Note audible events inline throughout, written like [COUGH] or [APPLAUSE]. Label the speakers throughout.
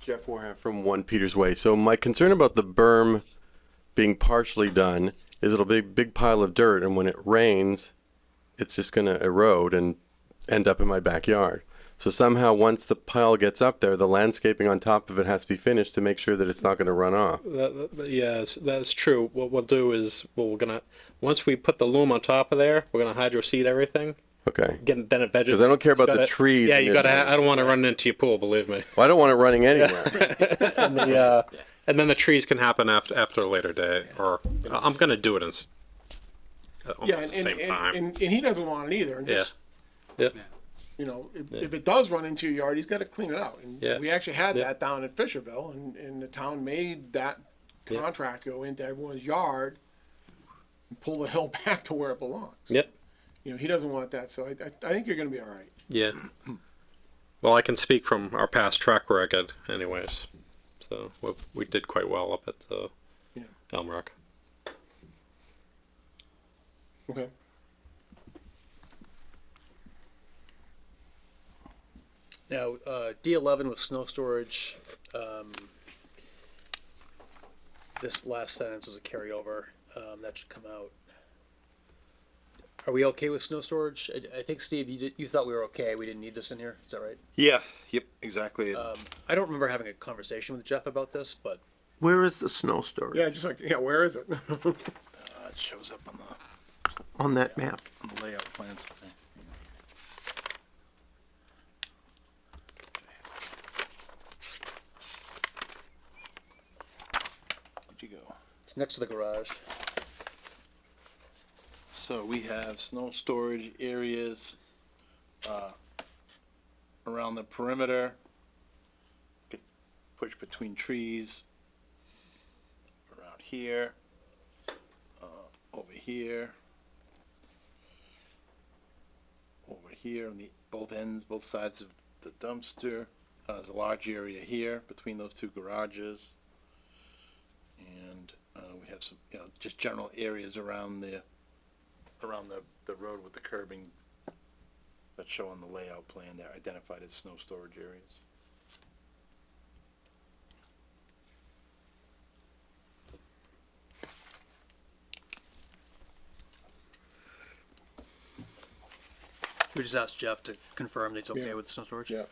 Speaker 1: Jeff Warham from One Peters Way. So my concern about the berm being partially done is it'll be a big pile of dirt, and when it rains, it's just going to erode and end up in my backyard. So somehow, once the pile gets up there, the landscaping on top of it has to be finished to make sure that it's not going to run off.
Speaker 2: That, that- that- yes, that's true. What we'll do is, well, we're gonna once we put the loom on top of there, we're gonna hydro seed everything.
Speaker 1: Okay.
Speaker 2: Get then it vegetates.
Speaker 1: 'Cause I don't care
Speaker 2: It's
Speaker 1: about the
Speaker 2: gotta-
Speaker 1: trees
Speaker 2: Yeah,
Speaker 1: and
Speaker 2: you gotta.
Speaker 1: everything.
Speaker 2: ha- I don't want to run into your pool. Believe
Speaker 3: [LAUGHS]
Speaker 2: me.
Speaker 1: Well, I don't want it running anywhere.
Speaker 2: And the, uh, and then the trees can happen after after a later day, or I- I'm gonna do it in s- at almost
Speaker 4: Yeah,
Speaker 2: the
Speaker 4: and,
Speaker 2: same
Speaker 4: and,
Speaker 2: time.
Speaker 4: and, and, and he doesn't want it either. And
Speaker 2: yeah.
Speaker 4: just,
Speaker 2: Yep.
Speaker 4: you know, if, if it does run into your yard, he's got to clean it out. And
Speaker 2: Yeah.
Speaker 4: we actually had
Speaker 2: Yeah.
Speaker 4: that down in Fisherville, and, and the town made that
Speaker 2: Yeah.
Speaker 4: contract go into everyone's yard and pull the [LAUGHS] hill back to where it belongs.
Speaker 2: Yep.
Speaker 4: You know, he doesn't want that, so I, I, I think you're going to be all right.
Speaker 2: Yeah. Well, I can speak from our past track record, anyways. So we, we did quite well up at uh,
Speaker 4: Yeah.
Speaker 2: Elm Rock.
Speaker 4: Okay.
Speaker 5: Now, uh, D11 with snow storage, um, this last sentence was a carryover, um, that should come out. Are we okay with snow storage? I, I think, Steve, you did, you thought we were okay, we didn't need this in here, is that right?
Speaker 3: Yeah. Yep. Exactly.
Speaker 2: Uh,
Speaker 5: I don't remember having a conversation with Jeff about this, but
Speaker 6: Where is the snow storage
Speaker 4: Yeah, just like, yeah, where is it? [LAUGHS]
Speaker 3: it shows up on the,
Speaker 6: on that map?
Speaker 3: on the layout plans. Where'd you go?
Speaker 5: it's next to the garage.
Speaker 3: So we have snow storage areas, uh, around the perimeter, get pushed between trees, around here, uh, over here, over here on the, both ends, both sides of the dumpster. Uh, there's a large area here between those two garages. And, uh, we have some, you know, just general areas around the, around the, the road with the curbing that's showing the layout plan there identified as snow storage areas.
Speaker 5: We just asked Jeff to confirm that it's okay
Speaker 4: Yeah.
Speaker 5: with snow storage?
Speaker 4: yeah.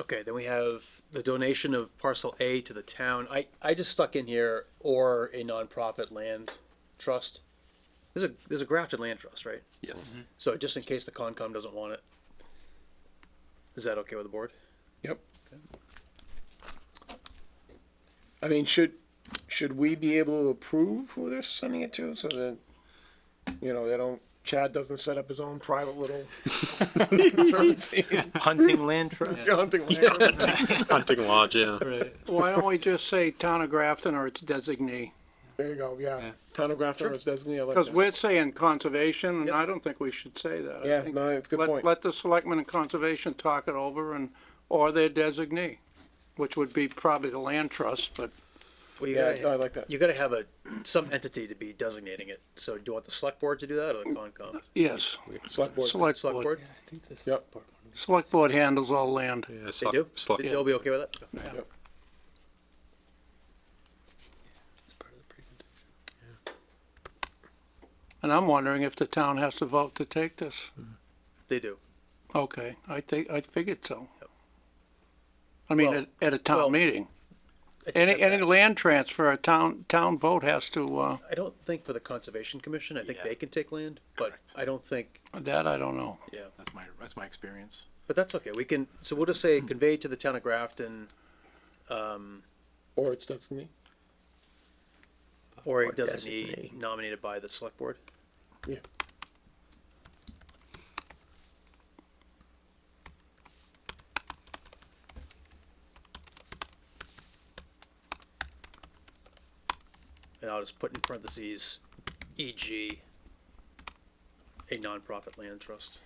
Speaker 5: Okay, then we have the donation of parcel A to the town. I, I just stuck in here, or a nonprofit land trust. There's a, there's a Grafton Land Trust, right?
Speaker 3: Yes.
Speaker 5: So just in case the Concom doesn't want it, is that okay with the board?
Speaker 4: Yep. I mean, should, should we be able to approve who they're sending it to so that, you know, they don't, Chad doesn't set up his own private little. [LAUGHS]
Speaker 3: Hunting
Speaker 6: [LAUGHS]
Speaker 3: land trust?
Speaker 4: hunting land.
Speaker 2: Hunting lodge, yeah.
Speaker 7: Why don't we just say Town of Grafton or its designee?
Speaker 4: There you go, yeah. Town of Grafton is designated. I like
Speaker 7: Because
Speaker 4: that.
Speaker 7: we're saying conservation, and I
Speaker 5: Yep.
Speaker 7: don't think we should say that. I
Speaker 4: Yeah,
Speaker 7: think
Speaker 4: no, it's a good
Speaker 7: let-
Speaker 4: point.
Speaker 7: Let the selectmen and conservation talk it over and, or their designee, which would be probably the land trust, but
Speaker 5: Well, you
Speaker 4: Yeah, I
Speaker 5: gotta,
Speaker 4: like that.
Speaker 5: you gotta have a, some entity to be designating it. So do you want the select board to do that or the Concom?
Speaker 7: yes,
Speaker 4: Select board.
Speaker 7: select
Speaker 5: Select
Speaker 7: board.
Speaker 5: board,
Speaker 4: Yep.
Speaker 7: Select board handles all land.
Speaker 2: yeah
Speaker 5: they
Speaker 2: select-
Speaker 5: do?
Speaker 2: select-
Speaker 5: They'll be okay with that?
Speaker 7: And I'm wondering if the town has to vote to take this.
Speaker 5: They do.
Speaker 7: Okay, I think, I figured so. I mean,
Speaker 5: Well-
Speaker 7: at, at a
Speaker 5: well,
Speaker 7: town meeting.
Speaker 5: I take
Speaker 7: Any,
Speaker 5: that
Speaker 7: any
Speaker 5: back.
Speaker 7: land transfer, a town, town vote has to, uh,
Speaker 5: I don't think for the Conservation Commission, I think they can take land, but I don't think,
Speaker 7: that I don't know.
Speaker 5: yeah.
Speaker 3: That's my, that's my experience.
Speaker 5: But that's okay, we can, so we'll just say conveyed to the town of Grafton
Speaker 4: Or it's designee.
Speaker 5: or a designee nominated by the select board.
Speaker 4: Yeah.
Speaker 5: And I'll just put in parentheses, e.g., a E nonprofit land trust.